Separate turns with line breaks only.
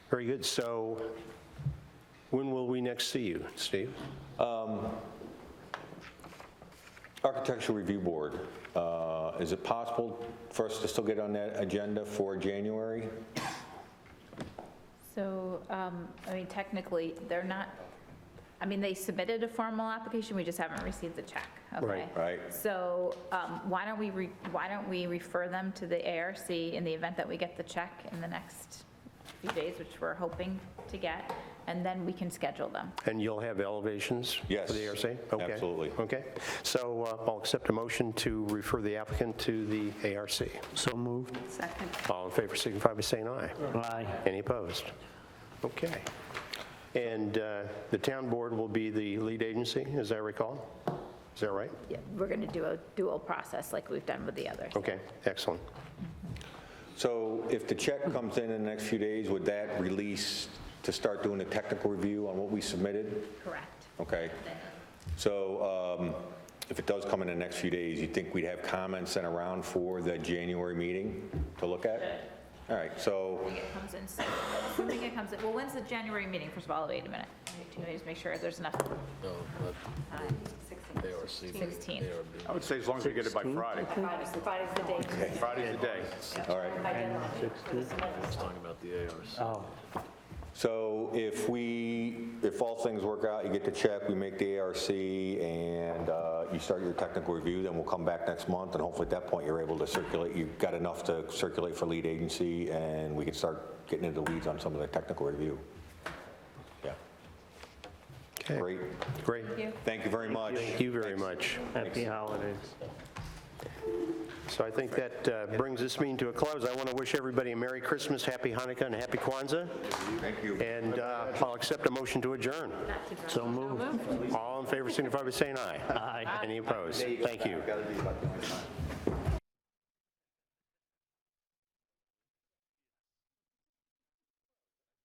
Very good. So when will we next see you, Steve?
Architectural Review Board, uh, is it possible for us to still get on that agenda for January?
So, um, I mean, technically, they're not, I mean, they submitted a formal application, we just haven't received the check, okay?
Right.
Right.
So, um, why don't we, re- why don't we refer them to the ARC in the event that we get the check in the next few days, which we're hoping to get, and then we can schedule them.
And you'll have elevations?
Yes,
For the ARC? Okay.
absolutely.
Okay. So uh, I'll accept a motion to refer the applicant to the ARC.
So moved.
Second.
All in favor, signify by saying aye.
Aye.
Any opposed? Okay. And uh, the town board will be the lead agency, as I recall? Is that right?
Yeah, We're gonna do a dual process like we've done with the others.
Okay, excellent.
So if the check comes in in the next few days, would that release to start doing a technical review on what we submitted?
Correct.
Okay. So um, if it does come in the next few days, you think we'd have comments sent around for the January meeting to look at? All right, so,
It comes in, soon. assuming it comes in, well, when's the January meeting, first of all, wait a minute, Can you just make sure there's enough
No, but they are seafood.
16th.
I would say as long as we get it by Friday.
Friday's the date.
Friday's the day.
all right.
It's talking about the ARs.
Oh,
So if we, if all things work out, you get the check, we make the ARC, and uh, you start your technical review, then we'll come back next month, and hopefully at that point, you're able to circulate, you've got enough to circulate for lead agency, and we can start getting into the weeds on some of the technical review. Yeah,
Okay.
great.
Great.
Thank you very much.
Thank you very much.
happy holidays.
So I think that uh, brings this meeting to a close. I want to wish everybody a Merry Christmas, Happy Hanukkah, and Happy Kwanzaa.
Thank you.
And uh, I'll accept a motion to adjourn.
So moved.
All in favor, signify by saying aye.
Aye.
Any opposed? Thank you.